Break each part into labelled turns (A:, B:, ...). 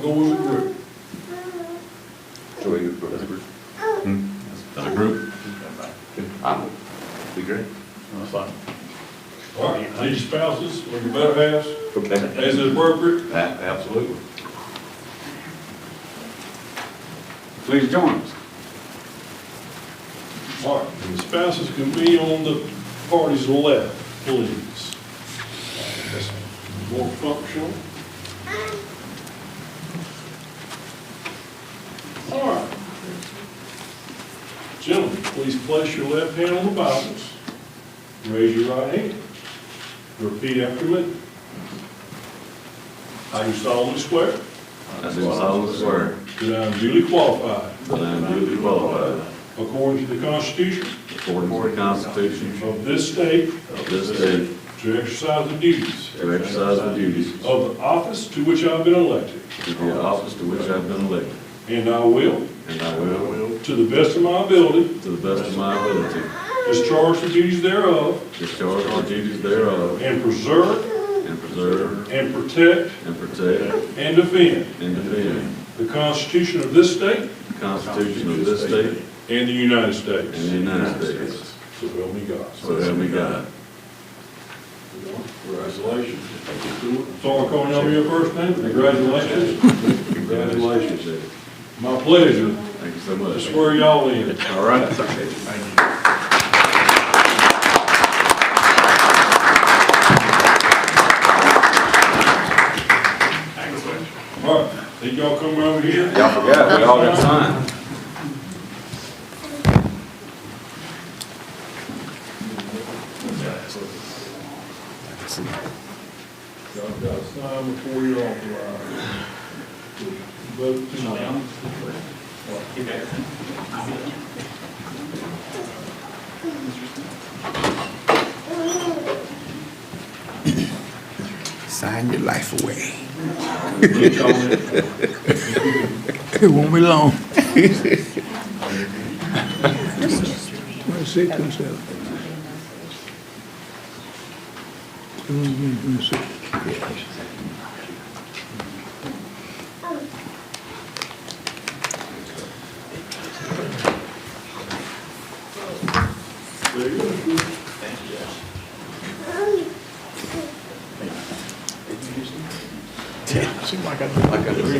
A: go as a group.
B: Joy, you for the group.
C: As a group?
B: I'm, be great.
A: All right, these spouses, or your better halves,
B: Okay.
A: as is appropriate,
C: Absolutely.
D: Please join us.
A: all right, spouses can be on the party's left, please. That's More functional. All right. Gentlemen, please place your left hand on the Bibles, raise your right hand, repeat after me. I do solemnly swear
C: I do solemnly swear
A: that I am uh, duly qualified
C: that I am duly qualified,
A: According to the Constitution
C: according to the Constitution
A: of this state,
C: of this state,
A: to exercise the duties
C: to exercise the duties of
A: of the office to which I've been elected,
C: the office to which I have been elected,
A: and I will,
C: and I will,
A: to the best of my ability,
C: to the best of my ability,
A: discharge the duties thereof,
C: discharge the duties thereof,
A: and preserve,
C: and preserve,
A: and protect,
C: and protect,
A: and defend
C: and defend
A: the Constitution of this state
C: the Constitution of this state
A: and the United
C: and
A: States.
C: the United States.
A: So help me God.
C: So help me God.
A: Congratulations. Sorry, calling on your first name, congratulations.
C: Congratulations.
A: My pleasure
C: Thank you so
A: to
C: much.
A: swear y'all in.
C: All right.
A: All right, think y'all come over here?
B: Y'all forgot, we all got signed.
A: Y'all got to sign before you authorize. Vote tonight.
E: Sign your life away. It won't be long. Let's see, come sit. Come on, come on, come sit.
A: There you go.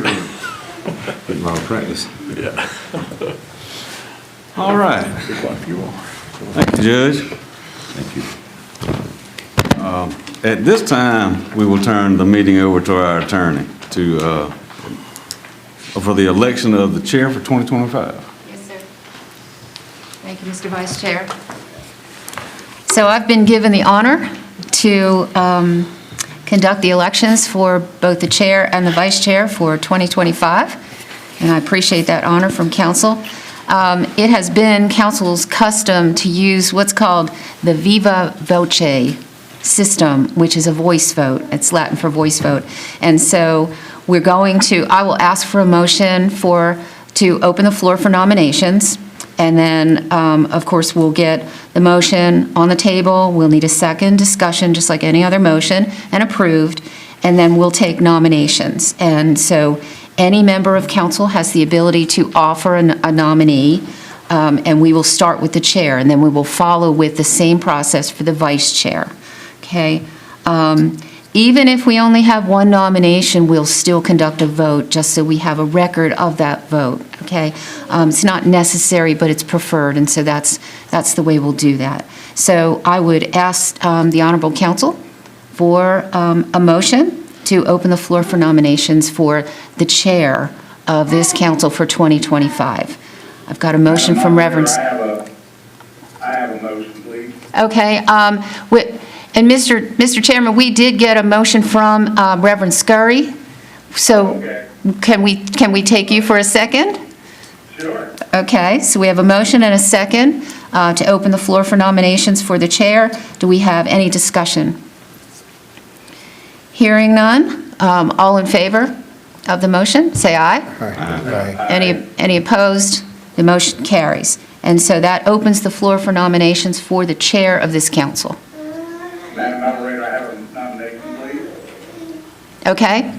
B: Been a lot of practice. Yeah. All right. Thank you, Judge. Thank you. At this time, we will turn the meeting over to our attorney to, uh, for the election of the chair for 2025.
F: Yes, sir. Thank you, Mr. Vice Chair. So I've been given the honor to um, conduct the elections for both the chair and the vice chair for 2025, and I appreciate that honor from council. Um, It has been council's custom to use what's called the viva voce system, which is a voice vote. It's Latin for voice vote. And so we're going to, I will ask for a motion for, to open the floor for nominations. And then, um, of course, we'll get the motion on the table. We'll need a second discussion, just like any other motion, and approved. And then we'll take nominations. And so any member of council has the ability to offer an- a nominee, um, and we will start with the chair, and then we will follow with the same process for the vice chair. Okay? Um, Even if we only have one nomination, we'll still conduct a vote, just so we have a record of that vote, okay? Um, It's not necessary, but it's preferred, and so that's, that's the way we'll do that. So I would ask um, the Honorable Council for um, a motion to open the floor for nominations for the chair of this council for 2025. I've got a motion from Reverend.
G: I have a, I have a motion, please.
F: Okay, um, wi- and Mr. Mr. Chairman, we did get a motion from um, Reverend Scurry, so
G: Okay.
F: can we, can we take you for a second?
G: Sure.
F: Okay, so we have a motion and a second uh, to open the floor for nominations for the chair. Do we have any discussion? Hearing none, um, all in favor of the motion, say aye. Any, any opposed? The motion carries. And so that opens the floor for nominations for the chair of this council.
G: Madam Moderator, I have a nomination, please.
F: Okay?